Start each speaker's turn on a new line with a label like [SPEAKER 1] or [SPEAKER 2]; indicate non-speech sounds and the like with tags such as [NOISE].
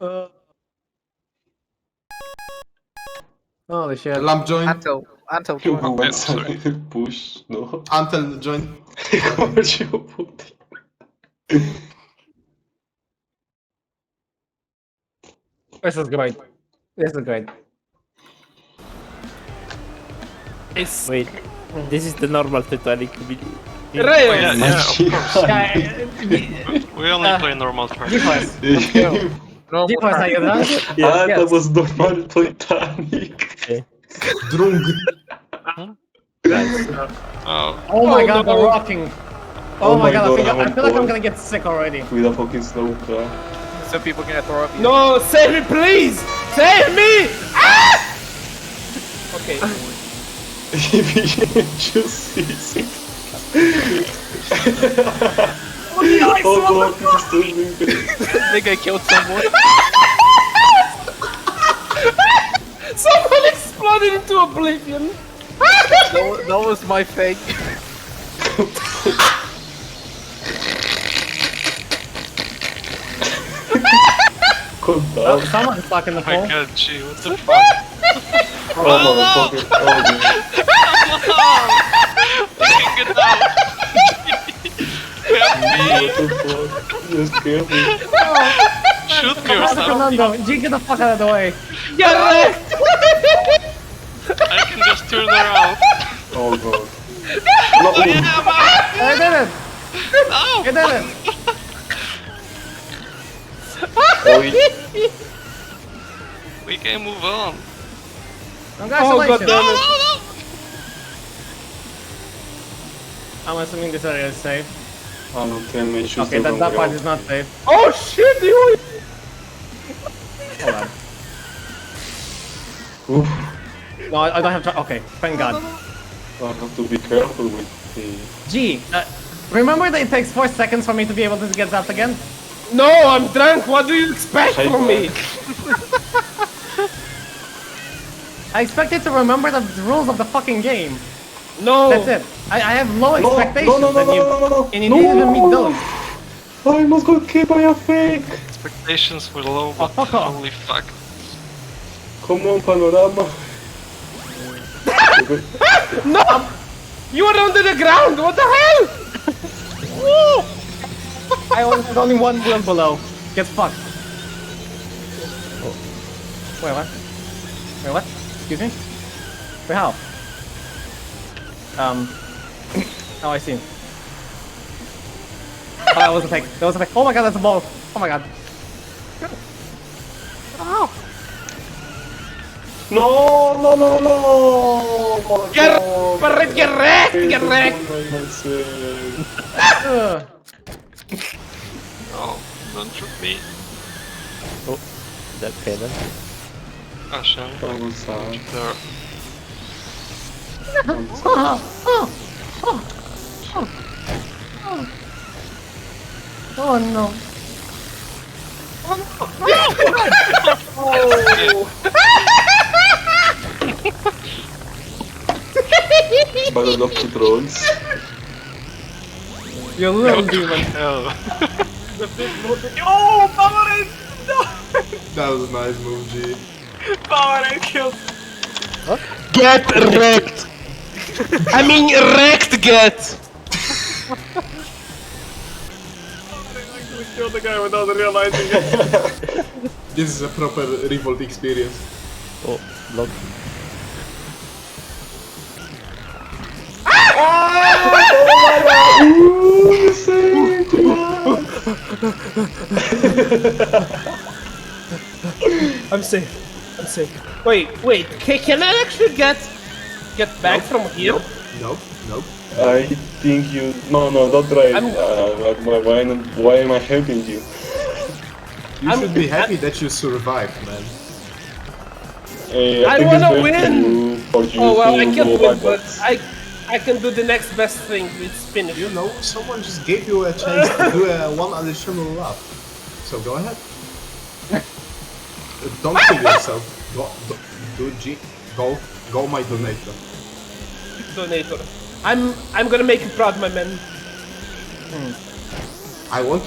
[SPEAKER 1] Uh. Holy shit.
[SPEAKER 2] Lamp join.
[SPEAKER 3] Until, until
[SPEAKER 4] You
[SPEAKER 3] join.
[SPEAKER 4] byłem
[SPEAKER 5] Nie, sorry.
[SPEAKER 4] sobie push, no.
[SPEAKER 2] Antel join.
[SPEAKER 4] Chodzi o buty.
[SPEAKER 1] This is great. This is great.
[SPEAKER 6] It's... Wait, this is the normal Titanic. we-
[SPEAKER 4] Oh, yeah, yeah, of course.
[SPEAKER 5] We only play normal track.
[SPEAKER 1] Defense.
[SPEAKER 3] No more
[SPEAKER 1] Defense, are you done?
[SPEAKER 4] A, to
[SPEAKER 1] Yes.
[SPEAKER 4] was normal Titanic.
[SPEAKER 2] Drung.
[SPEAKER 5] Oh,
[SPEAKER 1] Oh my god, we're rocking. Oh, my god, I, think
[SPEAKER 4] I'm
[SPEAKER 1] I, I
[SPEAKER 4] on
[SPEAKER 1] feel like I'm
[SPEAKER 4] board.
[SPEAKER 1] gonna get sick already.
[SPEAKER 4] With a fucking snow car.
[SPEAKER 3] So people gonna throw up.
[SPEAKER 6] No, save me, please! Save me!
[SPEAKER 3] Okay.
[SPEAKER 4] If you just see it. Oh god, it's stupid.
[SPEAKER 3] Nigga killed someone.
[SPEAKER 6] Someone exploded into oblivion!
[SPEAKER 3] That was, that was my fake.
[SPEAKER 4] Calm
[SPEAKER 1] Oh,
[SPEAKER 4] down.
[SPEAKER 1] [LAUGHS] someone's stuck in the
[SPEAKER 5] my
[SPEAKER 1] pole.
[SPEAKER 5] god, gee, what the fuck?
[SPEAKER 4] Oh motherfucker. Oh god.
[SPEAKER 5] Fucking get out! Help me!
[SPEAKER 4] What the fuck? Just scare me.
[SPEAKER 5] Shoot me or
[SPEAKER 1] Fernando,
[SPEAKER 5] something!
[SPEAKER 1] Fernando, G, get the fuck out of the way.
[SPEAKER 6] Get wrecked!
[SPEAKER 5] I can just turn around!
[SPEAKER 4] Oh god. No,
[SPEAKER 5] Yeah, man!
[SPEAKER 1] I did it.
[SPEAKER 5] No!
[SPEAKER 1] I did it.
[SPEAKER 4] oh, he-
[SPEAKER 5] We can move on!
[SPEAKER 1] Congratulations.
[SPEAKER 5] No, no,
[SPEAKER 1] I'm assuming this area is safe.
[SPEAKER 4] oh no, damn it, shoot
[SPEAKER 1] Okay, that,
[SPEAKER 4] the
[SPEAKER 1] that
[SPEAKER 4] wrong
[SPEAKER 1] part
[SPEAKER 4] girl.
[SPEAKER 1] is not safe.
[SPEAKER 6] Oh shit, you
[SPEAKER 1] Hold on.
[SPEAKER 4] Oof.
[SPEAKER 1] No, I, I don't have to. Okay, thank god.
[SPEAKER 4] I have to ah, tá be careful with the...
[SPEAKER 1] G, uh, remember that it takes 4 seconds for me to be able to get zapped again?
[SPEAKER 6] No, I'm drunk, what do you expect
[SPEAKER 4] Hey,
[SPEAKER 6] from me?
[SPEAKER 1] I expected to remember the rules of the fucking game.
[SPEAKER 6] No!
[SPEAKER 1] That's it. I, I have low
[SPEAKER 4] No,
[SPEAKER 1] expectations.
[SPEAKER 4] no, no,
[SPEAKER 1] and
[SPEAKER 4] no,
[SPEAKER 1] you,
[SPEAKER 4] no, no, no,
[SPEAKER 1] And you
[SPEAKER 4] no,
[SPEAKER 1] didn't even
[SPEAKER 4] no,
[SPEAKER 1] meet those.
[SPEAKER 4] I almost got killed by a fake!
[SPEAKER 5] Expectations were low, but
[SPEAKER 1] fuck off.
[SPEAKER 5] holy fuck.
[SPEAKER 4] Come on, Panorama!
[SPEAKER 6] No! You are under the ground, what the hell?
[SPEAKER 1] I only had only one wheel below. Get fucked. Wait, what? Wait, what? Excuse me? Wait, how? Um. [COUGHS] Oh, I see. Oh, that was a fake. That was a fake. Oh my god, that's a ball. Oh my god.
[SPEAKER 4] No, no, no, no!
[SPEAKER 6] Get,
[SPEAKER 4] Oh,
[SPEAKER 6] wrecked, get wrecked,
[SPEAKER 4] I
[SPEAKER 6] get
[SPEAKER 4] don't
[SPEAKER 6] wrecked!
[SPEAKER 4] know myself.
[SPEAKER 1] Ugh.
[SPEAKER 5] No, don't shoot me.
[SPEAKER 6] That pedal.
[SPEAKER 5] Ashen,
[SPEAKER 4] That was sad.
[SPEAKER 5] there.
[SPEAKER 1] Oh no.
[SPEAKER 4] Battle of the Trolls.
[SPEAKER 1] You little demon.
[SPEAKER 5] Hell.
[SPEAKER 6] Oh, Powerade!
[SPEAKER 2] That was a nice move, G.
[SPEAKER 6] Powerade killed. Get wrecked! I mean, wrecked
[SPEAKER 2] [LAUGHS]
[SPEAKER 6] get!
[SPEAKER 2] Kill the guy without realizing it. this is a proper revolt experience.
[SPEAKER 6] I'm safe. I'm safe. Wait, wait. Can, can I actually get get back from here?
[SPEAKER 2] Nope, nope.
[SPEAKER 4] I think you... No, no, don't try it.
[SPEAKER 6] I'm-
[SPEAKER 4] Uh, why- why, why, not- why am I helping you?
[SPEAKER 2] You
[SPEAKER 6] I'm-
[SPEAKER 2] should be happy that you survived, man.
[SPEAKER 4] Hey,
[SPEAKER 6] I
[SPEAKER 4] Eh, think it's
[SPEAKER 6] wanna
[SPEAKER 4] best
[SPEAKER 6] win!
[SPEAKER 4] for You, for you
[SPEAKER 6] Oh well,
[SPEAKER 4] to
[SPEAKER 6] I can't
[SPEAKER 4] go
[SPEAKER 6] win, but
[SPEAKER 4] backwards.
[SPEAKER 6] I I can do the next best thing. It's finish.
[SPEAKER 2] You know, someone just gave you a chance to do a one additional lap. So go ahead. Uh, don't kill yourself. Go, do, do G. Go, go my donator.
[SPEAKER 6] Donator. I'm I'm gonna make you proud, my man.
[SPEAKER 2] I want